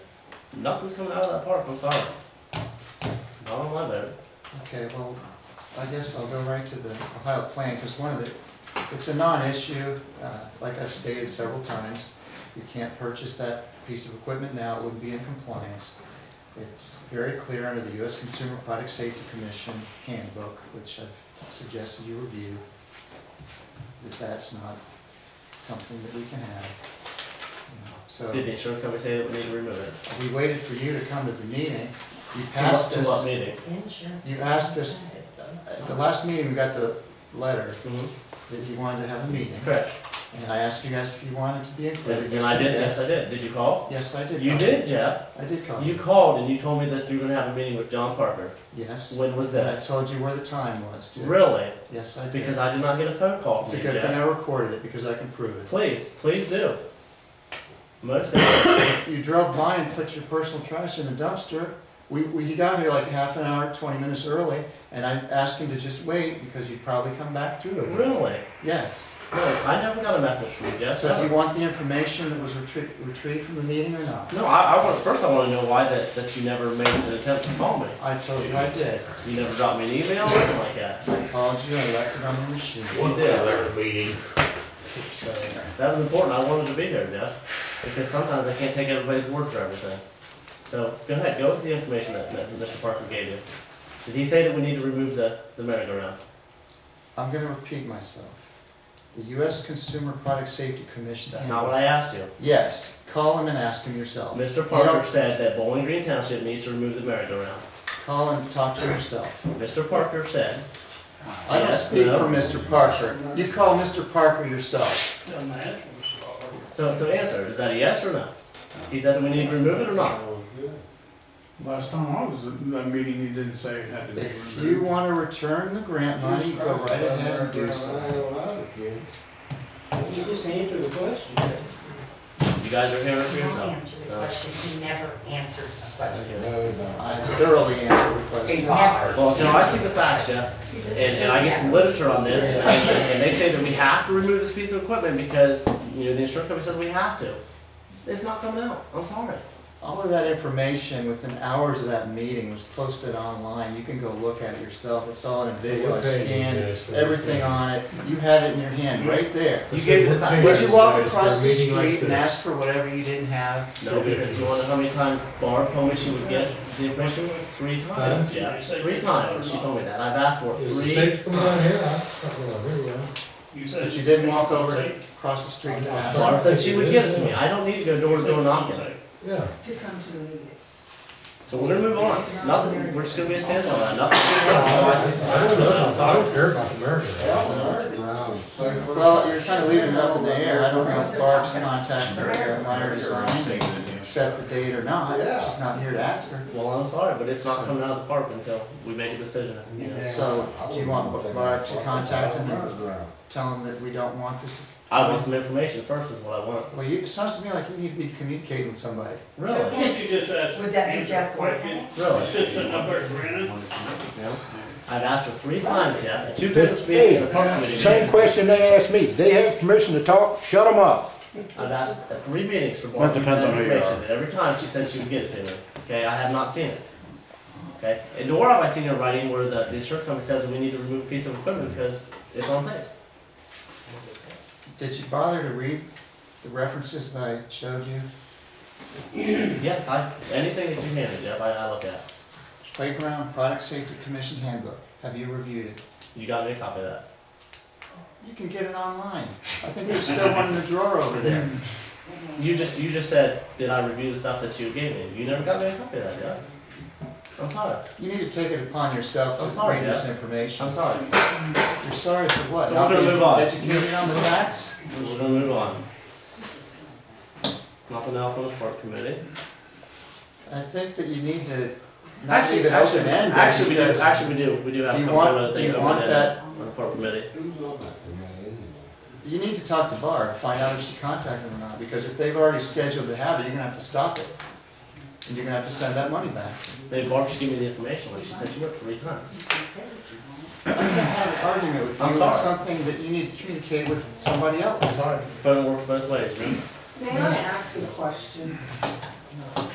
Nothing's coming out of that park, I'm sorry. Not on my bed. Okay, well, I guess I'll go right to the Ohio plan, because one of the, it's a non-issue, uh, like I've stated several times. You can't purchase that piece of equipment now, it wouldn't be in compliance. It's very clear under the U.S. Consumer Product Safety Commission handbook, which I've suggested you review, that that's not something that we can have. you know, So, Did the insurance company say that we need to remove it? we waited for you to come to the meeting, you To what- passed To us. what meeting? Insurance. You asked us- At the last meeting, we got the letter Mm-hmm. that you wanted to have a meeting, Correct. and I asked you guys if you wanted to be included. And and I did, yes, I Yes, did. Did you call? Yes, I did. You call. did, Jeff. I did call. You called and you told me that you were gonna have a meeting with John Parker. Yes. When was And I this? told you where the time was too. Really? Yes, I did. Because I did not get a phone call It's from a you, good Jeff. thing I recorded it, because I can prove it. Please, please do. Most definitely. You drove by and put your personal trash in the dumpster. We, we, he got here like half an hour, twenty minutes early, and I asked him to just wait, because you'd probably come back through again. really? Yes. No, I never got a message from you, Jeff. So do never. you want the information that was retrieved, retrieved from the meeting or not? No, I, I want, first I want to know why that, that you never made an attempt to call me. I told you I did. You never dropped me an email, nothing like that. I called you, I left it on the machine. One other meeting, So that was important. I wanted to be there, Jeff, because sometimes I can't take everybody's word for everything. So go ahead, go with the information that, that Mr. Parker gave you. Did he say that we need to remove the, the merry-go-round? I'm gonna repeat myself. The U.S. Consumer Product Safety Commission. That's not what I asked you. Yes, call him and ask him yourself. Mr. You don't- Parker said that Bowling Green Township needs to remove the merry-go-round. Call and talk to yourself. Mr. Parker said I don't Yes, speak no. for Mr. Parker. You call Mr. Parker yourself. So, so answer, is that a yes or no? He said that we need to remove it or not? Last time I was at that meeting, you didn't say it had to be If you removed. wanna return the grant money, go right ahead and do so. You just answered the question. You guys are hearing for I'll yourself, answer the so. question, he never answers the question. okay. I thoroughly answered the question. Well, so I see the facts, Jeff, and, and I get some literature on this, and, I- and they say that we have to remove this piece of equipment because, you know, the insurance company says we have to. It's not coming out, I'm sorry. All of that information within hours of that meeting was posted online. You can go look at it yourself. It's all in video. I What page scanned is this? everything on it. You had it in your hand right there. You gave me the facts. Did you walk Yes, across for the a meeting like street and this. ask for whatever you didn't have? No, because you wanna know how many times Barb told me she would get the information? Three times, Jeff, three times, she told me that, I've asked for it Is it three. safe to come down here? I- I don't know, here we are. But you didn't walk over across the street and ask. Barb said she would get it to me, I don't need to go door to door knocking. Yeah. To come to the meetings. So we're gonna move on. Nothing, we're just gonna be a standstill on that. Nothing. Oh, I don't know, I don't care about the merry-go-round. Well, you're kind of leaving it up in the air. I don't know if Barb's contacted her, Myers, set the date or not. She's not here to ask her. Well, I'm sorry, but it's not coming out of the park until we make a decision, you know. So do you want Barb to contact him and tell him that we don't want this? I want some information first is what I want. Well, you, it sounds to me like you need to be communicating with somebody. Really? Would that be Jeff Whitehead? Really? I've asked her three times, Jeff, at two business meetings and a park committee Same meeting. question they asked me, they have permission to talk, shut them up. I've asked at three meetings for more That depends on who you information. are. And every time she said she would get it to me. Okay, I have not seen it. Okay, and nor have I seen her writing where the, the insurance company says that we need to remove a piece of equipment because it's unsafe. Did you bother to read the references that I showed you? Yes, I, anything that you handed, Jeff, I, I look at. Playground Product Safety Commission Handbook. Have you reviewed it? You got me a copy of that. You can get it online. I think there's still one in the drawer over there. You just you just said, did I review the stuff that you gave me? You never got me a copy of that, yeah? I'm sorry. You need to take it upon yourself I'm to sorry, bring this Dad. information. I'm sorry. You're sorry for what? So Not we're gonna being move on. educated on the facts? We're gonna move on. Nothing else on the park committee. I think that you need to not Actually, leave it actually, open-ended. actually, we do. because- Actually, we do. We do have. Do a you couple want- other do things you open want ended that- on the park committee? You need to talk to Barb, find out if she contacted them or not, because if they've already scheduled to have it, you're gonna have to stop it. And you're gonna have to send that money back. Maybe Barb should give me the information. Like she said, she worked three times. I'm gonna have an argument with you, I'm it's sorry. something that you need to communicate with somebody else. Phone works both ways. You know? May I ask a question?